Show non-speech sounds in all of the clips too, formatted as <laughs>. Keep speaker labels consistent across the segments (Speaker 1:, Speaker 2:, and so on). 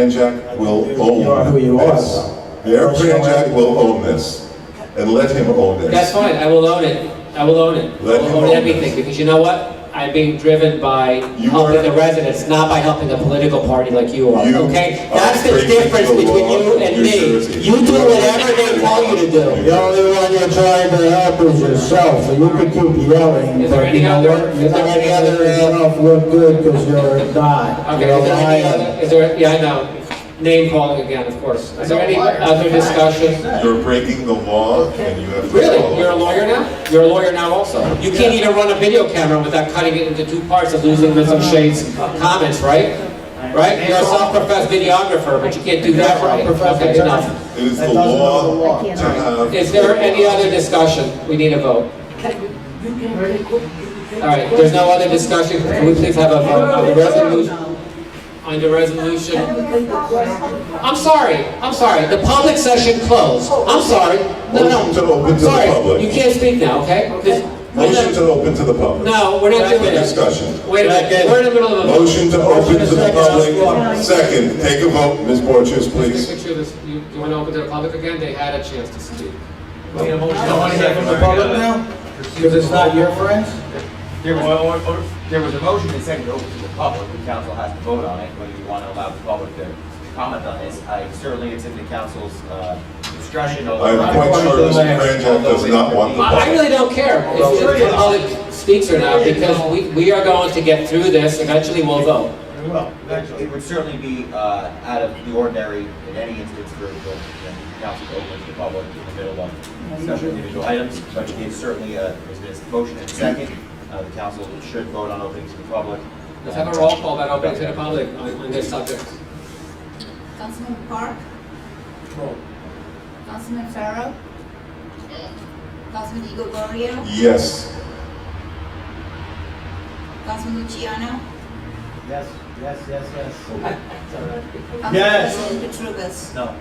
Speaker 1: Kranjak will
Speaker 2: You are
Speaker 1: own
Speaker 2: who you are,
Speaker 1: this.
Speaker 2: though.
Speaker 1: Mayor Kranjak will own this, and let him own this.
Speaker 3: That's fine, I will own it. I will own it. I
Speaker 1: Let him
Speaker 3: will
Speaker 1: own
Speaker 3: own everything,
Speaker 1: this.
Speaker 3: because you know what? I'm being driven by
Speaker 1: You
Speaker 3: helping
Speaker 1: are-
Speaker 3: the residents, not by helping a political party like you are,
Speaker 1: You
Speaker 3: okay?
Speaker 1: are
Speaker 3: That's the
Speaker 1: breaking
Speaker 3: difference
Speaker 1: the
Speaker 3: between
Speaker 1: law
Speaker 3: you
Speaker 1: of
Speaker 3: and
Speaker 1: New
Speaker 3: me.
Speaker 1: Jersey.
Speaker 3: You do
Speaker 1: You are
Speaker 3: whatever they
Speaker 1: breaking
Speaker 3: tell
Speaker 1: the law
Speaker 3: you to
Speaker 1: of New
Speaker 3: do.
Speaker 2: The only one you're trying to help is yourself, so you can keep yelling,
Speaker 3: Is there
Speaker 2: but you
Speaker 3: any
Speaker 2: know
Speaker 3: other-
Speaker 2: what? You
Speaker 3: is there
Speaker 2: don't
Speaker 3: any other,
Speaker 2: make
Speaker 3: uh,
Speaker 2: yourself look good because you're a god.
Speaker 3: Okay,
Speaker 2: You're a
Speaker 3: is there any
Speaker 2: lion.
Speaker 3: other, is there, yeah, I know, name calling again, of course. Is there any other discussion?
Speaker 1: You're breaking the law, and you have to
Speaker 3: Really?
Speaker 1: follow.
Speaker 3: You're a lawyer now? You're a lawyer now also? You can't even run a video camera without cutting it into two parts and losing Mr. Shade's comments, right? Right? You're a self-professed videographer, but you can't do that right. Okay, enough.
Speaker 1: It is
Speaker 2: That
Speaker 1: the
Speaker 2: doesn't know the
Speaker 1: law
Speaker 2: law.
Speaker 1: to have.
Speaker 3: Is there any other discussion? We need a vote. All right, there's no other discussion. Can we please have a vote on the resolution? On the resolution? I'm sorry, I'm sorry. The public session closed. I'm sorry. No, no.
Speaker 1: Motion to open to the
Speaker 3: Sorry,
Speaker 1: public.
Speaker 3: You can't speak now, okay? This-
Speaker 1: Motion to open to the public.
Speaker 3: No, we're not doing
Speaker 1: Second
Speaker 3: this.
Speaker 1: Discussion.
Speaker 3: Wait a minute, we're in the middle of a.
Speaker 1: Motion to open to the
Speaker 2: Second.
Speaker 1: public. Second, take a vote, Ms. Borchers,
Speaker 3: Just
Speaker 1: please.
Speaker 3: make sure this, you, you wanna open to the public again? They had a chance to speak.
Speaker 2: You want to hear from the public now? Because it's not your friends?
Speaker 4: There was, there was a motion and second to open to the public, the council has to vote on it, whether you want to allow the public to comment on this. I Certainly, it's in the council's uh, discretion. over-
Speaker 1: I'm quite sure Mr. Kranjak does not want the
Speaker 3: I, I
Speaker 1: public.
Speaker 3: really don't care if the public speaks or not, because we, we are going to get through this, eventually we'll vote.
Speaker 4: It it would certainly be uh, out of the ordinary in any instance for the the council to open to the public in the middle of special individual items, but it's certainly, uh, there's this motion and second, Uh, the council should vote on opening to the public.
Speaker 3: Let's have a roll call about opening to the public on, on this subject.
Speaker 5: Councilman Park? Councilman Farrow? Councilman Igor Gorio?
Speaker 1: Yes,
Speaker 5: Councilman Luciano?
Speaker 4: Yes, yes, yes, yes.
Speaker 2: Yes.
Speaker 5: Councilman Petruvis?
Speaker 4: No.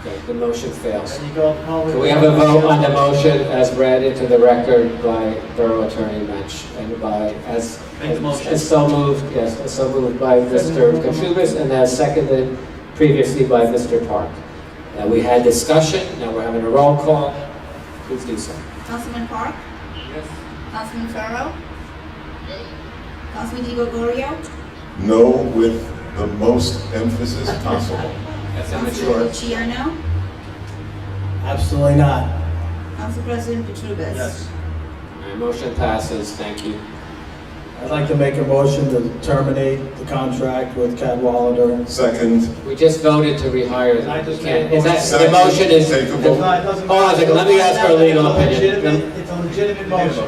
Speaker 3: Okay, the motion fails. Can we have a vote on the motion as read into the record by Borough Attorney Mensch and by, as,
Speaker 4: Make the motion.
Speaker 3: as so moved, yes, as so moved by Mr. Katrubis and as seconded previously by Mr. Park. Now, we had discussion, now we're having a roll call. Please do so.
Speaker 5: Councilman Park? Councilman Farrow? Councilman Igor Gorio?
Speaker 1: no with the most emphasis possible.
Speaker 3: That's
Speaker 5: Councilman Luciano?
Speaker 2: Absolutely not.
Speaker 5: Council President Petruvis?
Speaker 3: Motion passes, thank you.
Speaker 2: I'd like to make a motion to terminate the contract with Cadwalader.
Speaker 1: Second,
Speaker 3: We just voted to rehire them. We can't- Is that, the
Speaker 1: Second,
Speaker 3: motion is,
Speaker 1: take a
Speaker 3: hold
Speaker 1: vote.
Speaker 3: on a second, let me ask for a legal opinion.
Speaker 6: It's a legitimate
Speaker 4: Motion.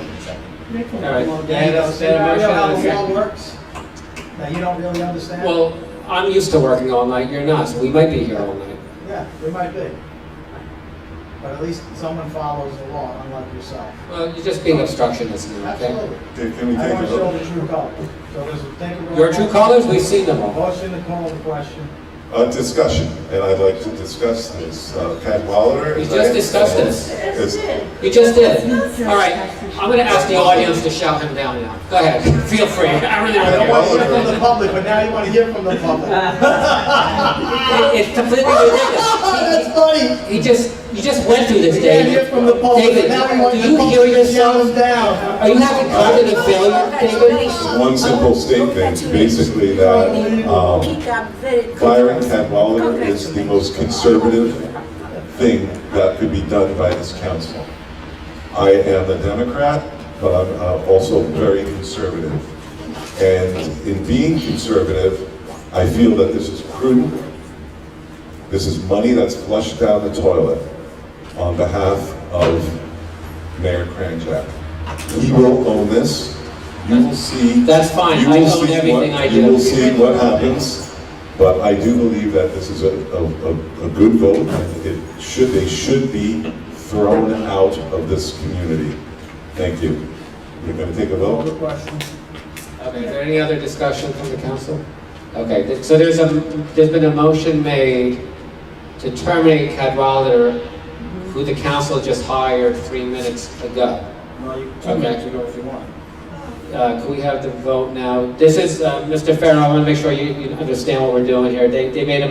Speaker 6: motion.
Speaker 3: All right.
Speaker 6: Yeah, you know,
Speaker 3: Is there a
Speaker 6: you know how
Speaker 3: motion?
Speaker 6: the law works? Now, you don't really understand?
Speaker 3: Well, I'm used to working all night, you're not, so we might be here all night.
Speaker 6: Yeah, we might be. But at least someone follows the law, unlike yourself.
Speaker 3: Well, you're just being obstructionist now, okay?
Speaker 6: Absolutely.
Speaker 1: can we
Speaker 6: I
Speaker 1: take
Speaker 6: want
Speaker 1: a
Speaker 6: to show
Speaker 1: vote?
Speaker 6: the true color. So there's a, take a roll.
Speaker 3: Your true colors, we've seen them all.
Speaker 6: Motion to call the question.
Speaker 1: A discussion, and I'd like to discuss this. Uh, Cadwalader.
Speaker 3: We
Speaker 1: as
Speaker 3: just
Speaker 1: I
Speaker 3: discussed
Speaker 1: understand,
Speaker 3: this.
Speaker 1: is-
Speaker 3: You just did. All right, I'm gonna ask the audience to shout him down now. Go ahead, <laughs> feel free, I really
Speaker 6: I
Speaker 3: don't
Speaker 6: don't want
Speaker 3: know.
Speaker 6: to hear from the public, but now you want to hear from the
Speaker 3: <laughs>
Speaker 6: public. Ah,
Speaker 3: It- It's completely ridiculous.
Speaker 6: That's funny.
Speaker 3: He just, you just went through this,
Speaker 6: We can't
Speaker 3: David.
Speaker 6: hear from the public,
Speaker 3: David,
Speaker 6: but now we want
Speaker 3: do
Speaker 6: the
Speaker 3: you hear
Speaker 6: public to shut us
Speaker 3: yourself?
Speaker 6: down.
Speaker 3: Are you having cognitive failure, David?
Speaker 1: One simple statement, basically that um, firing Cadwalader is the most conservative thing that could be done by this council. I am a Democrat, but I'm uh, also very conservative. And in being conservative, I feel that this is prudent. This is money that's flushed down the toilet on behalf of Mayor Kranjak. He will own this. You will see.
Speaker 3: That's fine.
Speaker 1: You
Speaker 3: I
Speaker 1: will
Speaker 3: own
Speaker 1: see
Speaker 3: everything
Speaker 1: what-
Speaker 3: I
Speaker 1: You
Speaker 3: do.
Speaker 1: will see what happens, but I do believe that this is a, a, a- a good vote. It should, they should be thrown out of this community. Thank you. You're gonna take a vote?
Speaker 3: Okay, is there any other discussion from the council? Okay, th- so there's a, there's been a motion made to terminate Cadwalader, who the council just hired three minutes ago.
Speaker 2: Well, you
Speaker 3: Okay.
Speaker 2: ago if you want.
Speaker 3: Uh, Can we have the vote now? This is, uh, Mr. Farrow, I want to make sure you you understand what we're doing here. They they made a